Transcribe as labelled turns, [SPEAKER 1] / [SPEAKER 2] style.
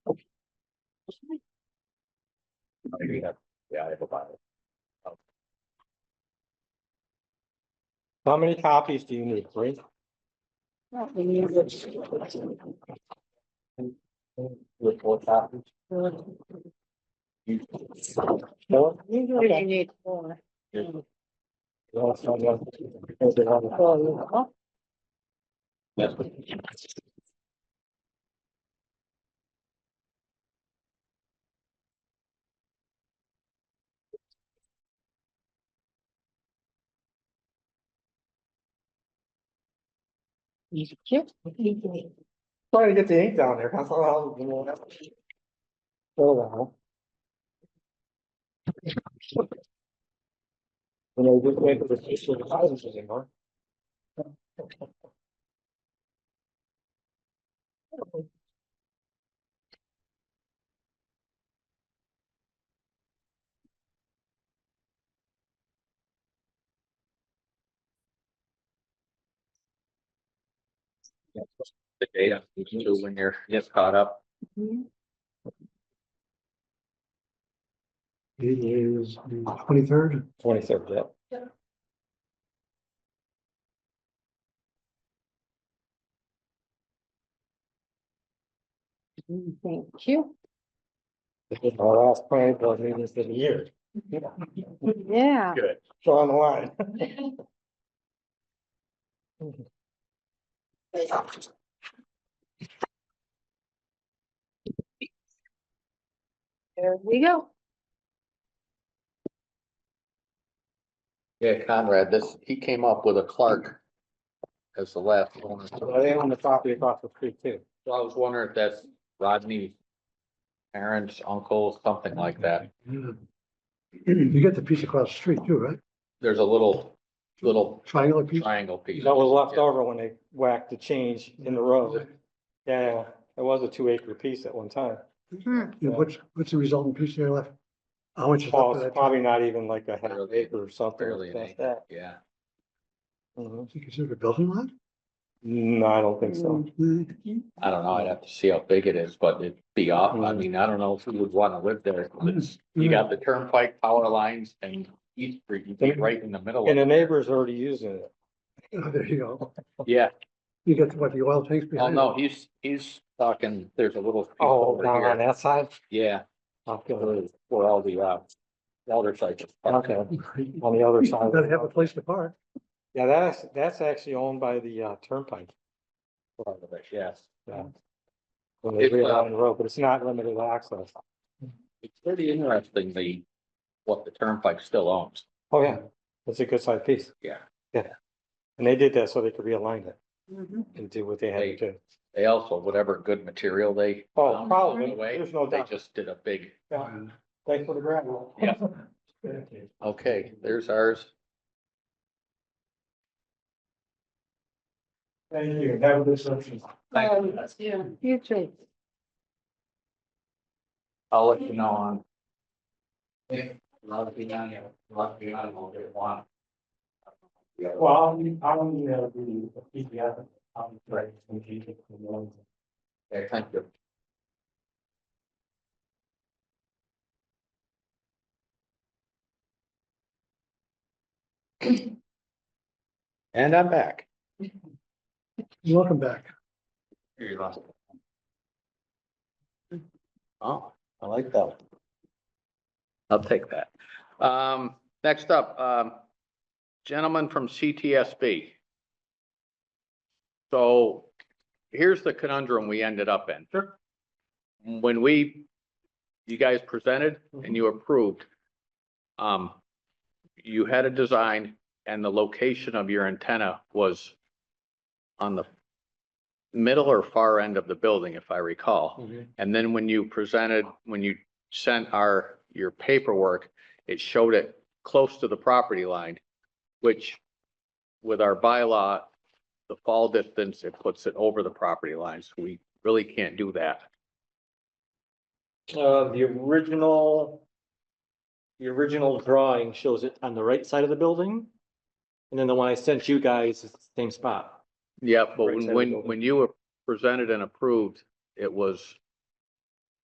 [SPEAKER 1] Yeah, I have a Bible.
[SPEAKER 2] How many copies do you need, three?
[SPEAKER 1] With four copies.
[SPEAKER 2] Four?
[SPEAKER 3] Usually you need four.
[SPEAKER 2] No, it's not one. It's the other.
[SPEAKER 1] Yes.
[SPEAKER 2] Trying to get the ink down there, that's all, you know. So long. You know, just wait for the issue of the thousands anymore.
[SPEAKER 1] The data, you can do when you're, you get caught up.
[SPEAKER 4] It is twenty-third.
[SPEAKER 2] Twenty-third, yeah.
[SPEAKER 3] Thank you.
[SPEAKER 2] This is our last planning board meeting for the year.
[SPEAKER 3] Yeah.
[SPEAKER 1] Good.
[SPEAKER 2] Draw the line.
[SPEAKER 3] There we go.
[SPEAKER 1] Yeah, Conrad, this, he came up with a Clark. As the last one. So
[SPEAKER 2] Well, they own the property across the street too.
[SPEAKER 1] I was wondering if that's Rodney. Parents, uncle, something like that.
[SPEAKER 4] You get the piece across the street too, right?
[SPEAKER 1] There's a little, little
[SPEAKER 4] Triangular piece.
[SPEAKER 1] triangle piece.
[SPEAKER 2] That was left over when they whacked the change in the road. Yeah, it was a two acre piece at one time.
[SPEAKER 4] And what's, what's the resulting piece there left? How much is
[SPEAKER 2] Oh,
[SPEAKER 4] left of
[SPEAKER 2] it's
[SPEAKER 4] that?
[SPEAKER 2] probably not even like a half acre or something
[SPEAKER 1] Barely an
[SPEAKER 2] like
[SPEAKER 1] acre.
[SPEAKER 2] that.
[SPEAKER 1] Yeah,
[SPEAKER 2] Mhm.
[SPEAKER 4] Is it considered a building lot?
[SPEAKER 2] No, I don't think so.
[SPEAKER 4] Mm,
[SPEAKER 1] I don't know. I'd have to see how big it is, but it'd be off.
[SPEAKER 2] Mm-hmm.
[SPEAKER 1] I mean, I don't know if we would want to live there. It's- You got the turnpike power lines and East Street, you get right in the
[SPEAKER 4] Mm.
[SPEAKER 1] middle.
[SPEAKER 2] And the
[SPEAKER 1] of
[SPEAKER 2] neighbor's already using it.
[SPEAKER 4] oh, There you go.
[SPEAKER 1] Yeah,
[SPEAKER 4] You get what, the oil tanks
[SPEAKER 1] oh
[SPEAKER 4] behind?
[SPEAKER 1] no, he's, he's talking, there's a little. piece
[SPEAKER 2] Oh,
[SPEAKER 1] over
[SPEAKER 2] down
[SPEAKER 1] here.
[SPEAKER 2] on that side?
[SPEAKER 1] Yeah,
[SPEAKER 2] Okay,
[SPEAKER 1] for all the, uh, elder sites.
[SPEAKER 2] okay,
[SPEAKER 4] it?
[SPEAKER 2] on the other
[SPEAKER 4] You
[SPEAKER 2] side.
[SPEAKER 4] Gotta have a place to park.
[SPEAKER 2] Yeah, that's, that's actually owned by the uh, turnpike.
[SPEAKER 1] Yes,
[SPEAKER 2] When they
[SPEAKER 1] If,
[SPEAKER 2] read
[SPEAKER 1] uh,
[SPEAKER 2] down the road, but it's not limited access.
[SPEAKER 1] it's pretty interesting, the, what the turnpike still owns.
[SPEAKER 2] Oh, yeah, it's a good sized piece.
[SPEAKER 1] Yeah.
[SPEAKER 2] Yeah. And they did that so they could realign it
[SPEAKER 3] Mhm.
[SPEAKER 2] and do what they had to do.
[SPEAKER 1] They also, whatever good material they.
[SPEAKER 2] Oh,
[SPEAKER 1] found
[SPEAKER 2] probably,
[SPEAKER 1] along the way,
[SPEAKER 2] there's no
[SPEAKER 1] They
[SPEAKER 2] doubt.
[SPEAKER 1] just did a big,
[SPEAKER 2] Yeah, Thanks for the gravel.
[SPEAKER 1] Yeah. okay, there's ours.
[SPEAKER 2] Thank you. Have a good session.
[SPEAKER 1] Thank you.
[SPEAKER 3] Um, Yeah, you too.
[SPEAKER 1] I'll let you know on. Yeah, Love to be on here, love to be on, we'll get one.
[SPEAKER 2] Well, I don't need to be, I'm right.
[SPEAKER 1] Okay, thank you. And I'm back.
[SPEAKER 4] Welcome back.
[SPEAKER 1] Here you go. Oh, I like that. one. I'll take that. Um, next up, um, gentleman from CTSB. So here's the conundrum we ended up in. Sure. When we, you guys presented and you approved, um, you had a design and the location of your antenna was on the middle or far end of the building, if I recall. And then when you presented, when you sent our, your paperwork, it showed it close to the property line, which with our bylaw, the fall distance, it puts it over the property line. So we really can't do that.
[SPEAKER 2] Uh, the original. The original drawing shows it on the right side of the building. And then the one I sent you guys is the same spot.
[SPEAKER 1] Yeah, but
[SPEAKER 2] Right side of the
[SPEAKER 1] when, when,
[SPEAKER 2] building.
[SPEAKER 1] when you were presented and approved, it was